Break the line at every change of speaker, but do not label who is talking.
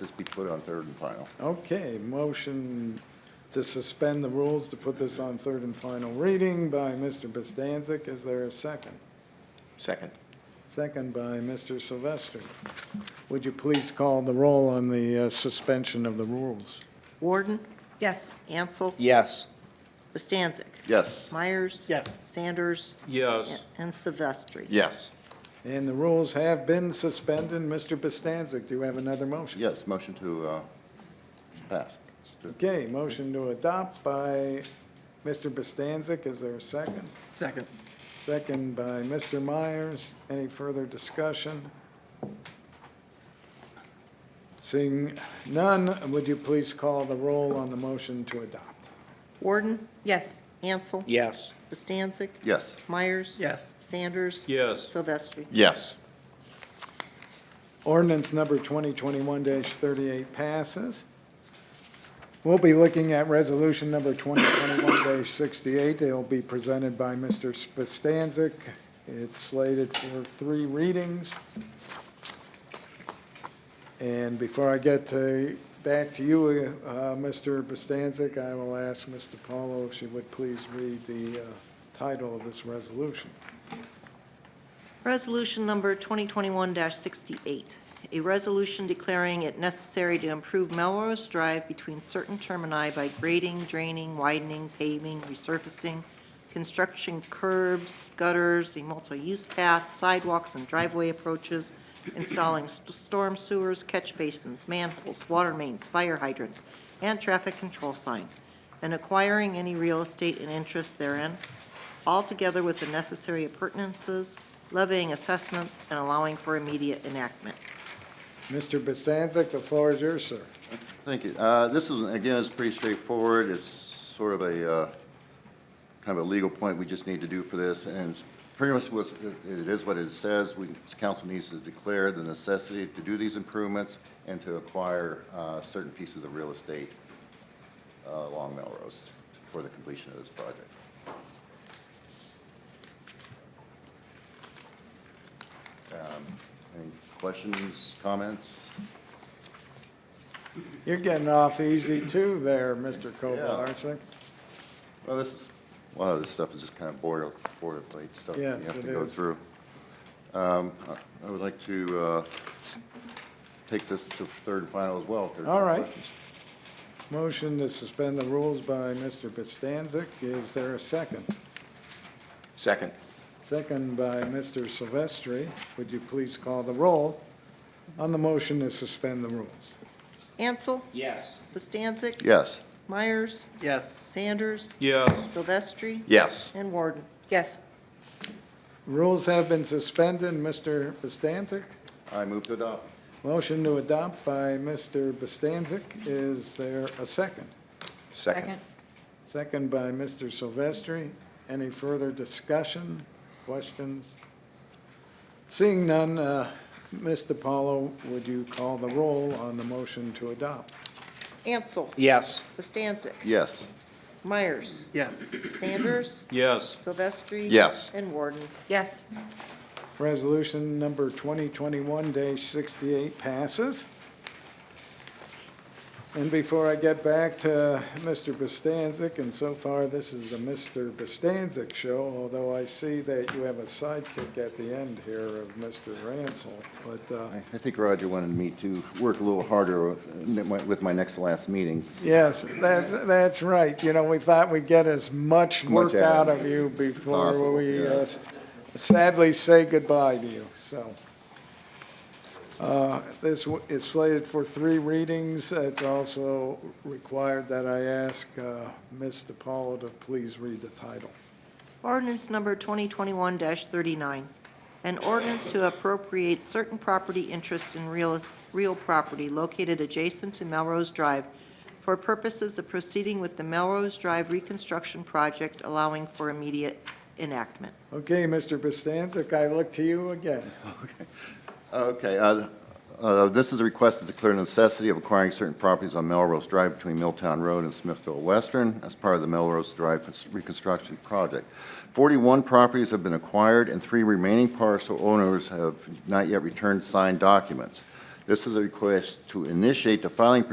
This be put on third and final.
Okay, motion to suspend the rules to put this on third and final reading by Mr. Bostancic. Is there a second?
Second.
Second by Mr. Sylvester. Would you please call the roll on the uh, suspension of the rules?
Warden,
Yes.
Ansel,
Yes.
Bastancik,
Yes.
Myers.
Yes.
Sanders,
Yes.
and Silvestri.
Yes.
And the rules have been suspended. Mr. Bostancic, do you have another motion?
Yes, motion to uh, pass.
Okay, motion to adopt by Mr. Bostancic. Is there a second?
Second.
Second by Mr. Myers. Any further discussion? Seeing none, would you please call the roll on the motion to adopt?
Warden,
Yes.
Ansel,
Yes.
Bastancik,
Yes.
Myers.
Yes.
Sanders.
Yes.
Silvestri.
Yes.
Ordinance number 2021-38 passes. We'll be looking at resolution number 2021-68. It'll be presented by Mr. Spastancic. It's slated for three readings. And before I get to, back to you, uh, Mr. Spastancic, I will ask Mr. Paulo if she would please read the uh, title of this resolution.
Resolution number 2021-68, a resolution declaring it necessary to improve Melrose Drive between certain termini by grading, draining, widening, paving, resurfacing, construction curbs, gutters, a multi-use path, sidewalks and driveway approaches, installing st- storm sewers, catch basins, manholes, water mains, fire hydrants, and traffic control signs, and acquiring any real estate and interest therein, altogether with the necessary appurtenances, levying assessments, and allowing for immediate enactment.
Mr. Spastancic, the floor is yours, sir.
Thank you. Uh, This is, again, it's pretty straightforward. It's sort of a, uh, kind of a legal point we just need to do for this, and it's pretty much what, it is what it says. We, council needs to declare the necessity to do these improvements and to acquire uh, certain pieces of real estate uh, along Melrose for the completion of this project. Um, Any questions, comments?
You're getting off easy too there, Mr. Kovalarczyk.
Well, this is, a lot of this stuff is just kind of border, boilerplate stuff that
Yes,
you have
it
to go
is.
through. Um, I I would like to uh, take this to third and final as well. if there's no
All right.
questions.
Motion to suspend the rules by Mr. Bostancic. Is there a second?
Second.
Second by Mr. Silvestri. Would you please call the roll on the motion to suspend the rules?
Ansel,
Yes.
Bastancik.
Yes.
Myers,
Yes.
Sanders,
Yes.
Silvestri,
Yes.
and Warden.
Yes.
Rules have been suspended. Mr. Bostancic?
I move to adopt.
Motion to adopt by Mr. Bostancic. Is there a second?
Second.
Second by Mr. Silvestri. Any further discussion, questions? Seeing none, uh, Ms. DiPaolo, would you call the roll on the motion to adopt?
Ansel,
Yes.
Bastancik.
Yes.
Myers,
Yes.
Sanders,
Yes.
Silvestri.
Yes.
And Warden.
Yes.
Resolution number 2021-68 passes. And before I get back to Mr. Bostancic, and so far, this is the Mr. Bostancic show, although I see that you have a sidekick at the end here of Mr. Ransel, but uh,
I I think Roger wanted me to work a little harder with with my next last meeting.
Yes, that's, that's right. You know, we thought we'd get as much work
Much out
out
of
of you before
Possible,
we uh,
yes.
sadly say goodbye to you, so. Uh, This w- is slated for three readings. It's also required that I ask uh, Ms. DiPaolo to please read the title.
Ordinance number 2021-39, an ordinance to appropriate certain property interest in real, real property located adjacent to Melrose Drive for purposes of proceeding with the Melrose Drive reconstruction project, allowing for immediate enactment.
Okay, Mr. Bostancic, I look to you again.
Okay, uh, uh, this is a request to declare necessity of acquiring certain properties on Melrose Drive between Milltown Road and Smithville Western as part of the Melrose Drive cons- reconstruction project. Forty-one properties have been acquired, and three remaining parcel owners have not yet returned signed documents. This is a request to initiate the filing